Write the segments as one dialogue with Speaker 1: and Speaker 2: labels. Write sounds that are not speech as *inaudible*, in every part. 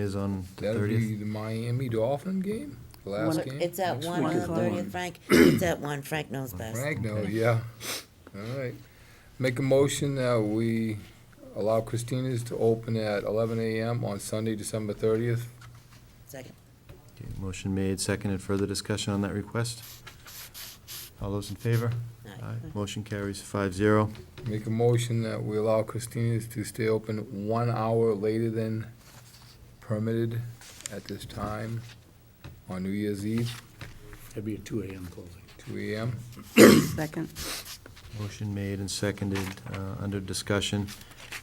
Speaker 1: is on the
Speaker 2: That'll be
Speaker 1: 30th.
Speaker 2: the Miami Dolphin game, the
Speaker 3: One
Speaker 2: last
Speaker 3: o-
Speaker 2: game?
Speaker 4: It's at
Speaker 3: Next
Speaker 4: one
Speaker 3: week
Speaker 4: on
Speaker 3: is
Speaker 4: the
Speaker 3: the one.
Speaker 4: thirtieth, Frank, it's at one, Frank knows best.
Speaker 2: Frank, no, yeah. All right. Make a motion that we allow Christina's to open at eleven AM on Sunday, December thirtieth.
Speaker 4: Second,
Speaker 1: Okay, Motion made, seconded, further discussion on that request? All those in favor?
Speaker 4: Aye.
Speaker 1: Motion carries five zero.
Speaker 2: Make a motion that we allow Christina's to stay open one hour later than permitted at this time on New Year's Eve,
Speaker 5: That'd be a two AM closing.
Speaker 2: two AM.
Speaker 3: Second,
Speaker 1: Motion made and seconded, uh, under discussion.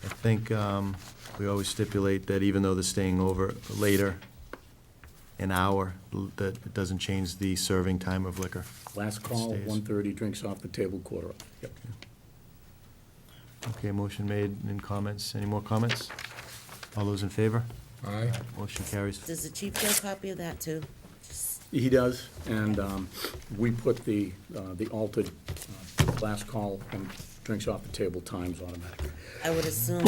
Speaker 1: I think um, we always stipulate that even though they're staying over later, an hour, l- that it doesn't change the serving time of liquor.
Speaker 5: Last call,
Speaker 1: Stays.
Speaker 5: 1:30, drinks off the table, quarter off. Yep.
Speaker 1: Okay, motion made and comments, any more comments? All those in favor?
Speaker 2: All right?
Speaker 1: Motion carries
Speaker 4: does the chief get a copy of that too?
Speaker 5: He does, and um, we put the, uh, the altered uh, last call and drinks off the table times automatic.
Speaker 4: I would
Speaker 5: *coughs*
Speaker 4: assume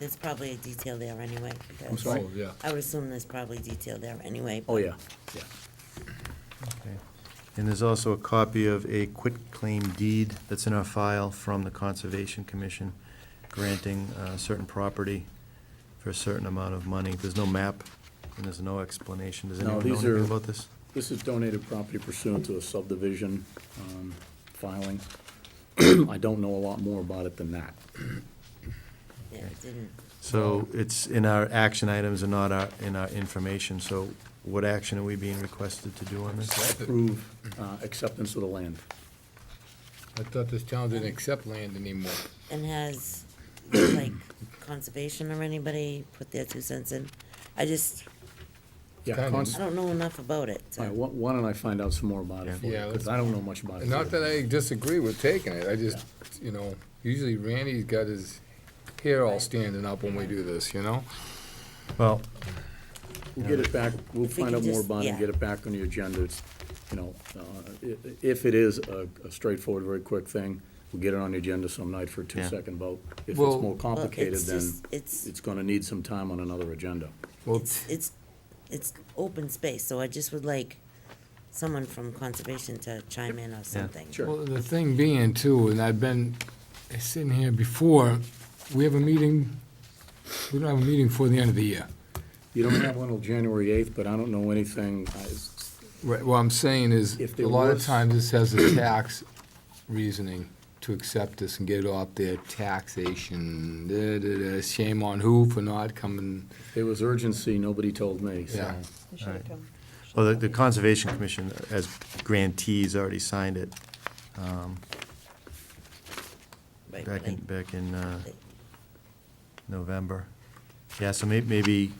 Speaker 4: there's probably a detail there anyway,
Speaker 5: I'm
Speaker 4: because
Speaker 5: sorry?
Speaker 2: Oh, yeah.
Speaker 4: I would assume there's probably detail there anyway.
Speaker 5: Oh, yeah, yeah.
Speaker 1: Okay. And there's also a copy of a quitclaim deed that's in our file from the Conservation Commission granting uh, certain property for a certain amount of money. There's no map and there's no explanation. Does
Speaker 5: No,
Speaker 1: anyone know
Speaker 5: these are-
Speaker 1: anything about this?
Speaker 5: This is donated property pursuant to a subdivision um, filing. *clears throat* I don't know a lot more about it than that.
Speaker 4: Yeah, it didn't,
Speaker 1: So it's in our action items and not our, in our information. So what action are we being requested to do on this?
Speaker 5: Approve uh, acceptance of the land.
Speaker 2: I thought this town didn't accept land anymore.
Speaker 4: and has,
Speaker 5: *coughs*
Speaker 4: like, conservation or anybody put their two cents in? I just,
Speaker 5: Yeah,
Speaker 2: Kind of.
Speaker 5: cons-
Speaker 4: I don't know enough about it,
Speaker 5: All
Speaker 4: so,
Speaker 5: right, why why don't I find out some more about it for you,
Speaker 2: Yeah,
Speaker 5: because I don't know much about it.
Speaker 2: Not that I disagree with taking it, I just, you know, usually Randy's got his hair all standing up when we do this, you know?
Speaker 1: Well,
Speaker 5: We'll get it back, we'll
Speaker 4: If we
Speaker 5: find out
Speaker 4: can
Speaker 5: more
Speaker 4: just-
Speaker 5: about it, and
Speaker 4: yeah.
Speaker 5: get it back on the agenda. It's, you know, uh, i- i- if it is a a straightforward, very quick thing, we'll get it on the agenda some night for a
Speaker 1: Yeah.
Speaker 5: two-second vote. If it's
Speaker 2: Well- Well,
Speaker 5: more complicated,
Speaker 4: it's
Speaker 5: then
Speaker 4: just- it's-
Speaker 5: it's gonna need some time on another agenda.
Speaker 2: Well,
Speaker 4: it's, it's, it's open space, so I just would like someone from conservation to chime in or something.
Speaker 5: Sure.
Speaker 2: Well, the thing being too, and I've been sitting here before, we have a meeting, we don't have a meeting before the end of the year.
Speaker 5: You don't have one till January 8th, but I don't know anything. I- it's-
Speaker 2: Right, what I'm saying is,
Speaker 5: If
Speaker 2: a
Speaker 5: there
Speaker 2: lot of
Speaker 5: was-
Speaker 2: times this has a tax reasoning to accept this and get it off their taxation, da, da, da, shame on who for not coming,
Speaker 5: There was urgency, nobody told me, so.
Speaker 2: Yeah.
Speaker 1: Alright. well, the- the Conservation Commission, as grantees, already signed it um,
Speaker 4: Right,
Speaker 1: back in,
Speaker 4: like-
Speaker 1: back in uh, November. Yeah, so may, maybe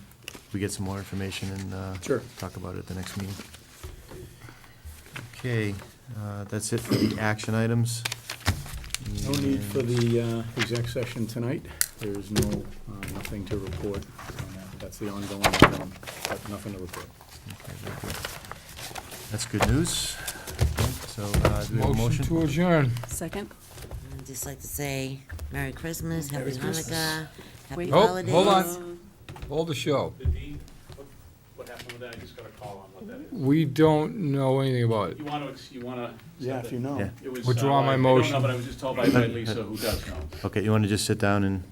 Speaker 1: we get some more information and, uh.
Speaker 5: Sure.
Speaker 1: Talk about it at the next meeting. Okay, uh, that's it for the action items.
Speaker 5: No need for the uh, exec session tonight. There is no, uh, nothing to report on that. That's the ongoing, um, but nothing to report.
Speaker 1: Okay, very good. That's good news. So, uh, do we have a
Speaker 2: motion to
Speaker 1: motion?
Speaker 2: adjourn.
Speaker 3: second?
Speaker 4: I'd just like to say Merry Christmas, Happy
Speaker 5: Merry Christmas.
Speaker 4: Hanukkah, Happy
Speaker 3: Wait.
Speaker 2: Oh,
Speaker 4: Holidays.
Speaker 2: hold on. Hold the show.
Speaker 6: The deed, what- what happened with that, I just got a call on what that is.
Speaker 2: We don't know anything about it.
Speaker 6: You wanna, ex- you wanna.
Speaker 1: Yeah.
Speaker 6: It was, uh,
Speaker 2: Withdraw my
Speaker 6: I- I don't
Speaker 2: motion.
Speaker 6: know, but I was just told by by Lisa, who does know.
Speaker 1: Okay, you wanna just sit down and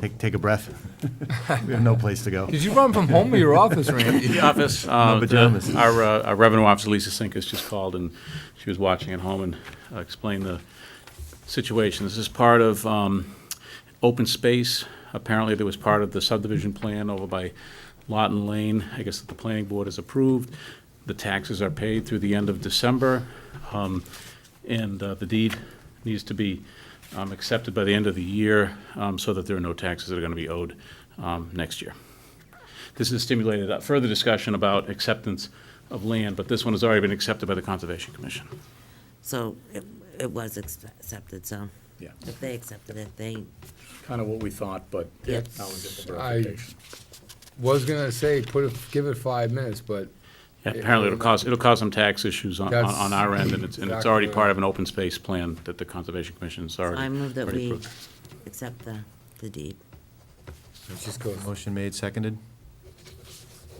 Speaker 1: take, take a breath? *laughs* We have no place to
Speaker 5: *laughs*
Speaker 1: go.
Speaker 2: Did you run from home to your office, Randy?
Speaker 6: The office,
Speaker 1: My
Speaker 6: uh,
Speaker 1: pajamas.
Speaker 6: the- our, uh, our revenue officer, Lisa Sinkus, just called, and she was watching at home and uh, explained the situation. This is part of um, open space. Apparently, there was part of the subdivision plan over by Lawton Lane. I guess that the planning board has approved. The taxes are paid through the end of December, um, and uh, the deed needs to be um, accepted by the end of the year um, so that there are no taxes that are going to be owed um, next year. This has stimulated a further discussion about acceptance of land, but this one has already been accepted by the Conservation Commission.
Speaker 4: So it, it was ex- accepted, so
Speaker 5: Yeah.
Speaker 4: if they accepted it, they,
Speaker 5: kind of what we thought, but now
Speaker 4: Yes.
Speaker 5: we get the
Speaker 2: I-
Speaker 5: verification.
Speaker 2: *laughs* Was gonna say, put, it- give it five minutes, but
Speaker 6: Yeah, Apparently, it'll cause, it'll cause some tax issues on, on
Speaker 2: That's
Speaker 6: on our end, and it's, and it's already
Speaker 2: exactly-
Speaker 6: part of an open space plan that the Conservation Commission's already.
Speaker 4: I move that
Speaker 6: already
Speaker 4: we
Speaker 6: approved.
Speaker 4: accept the, the deed.
Speaker 2: it just goes.
Speaker 1: Motion made, seconded.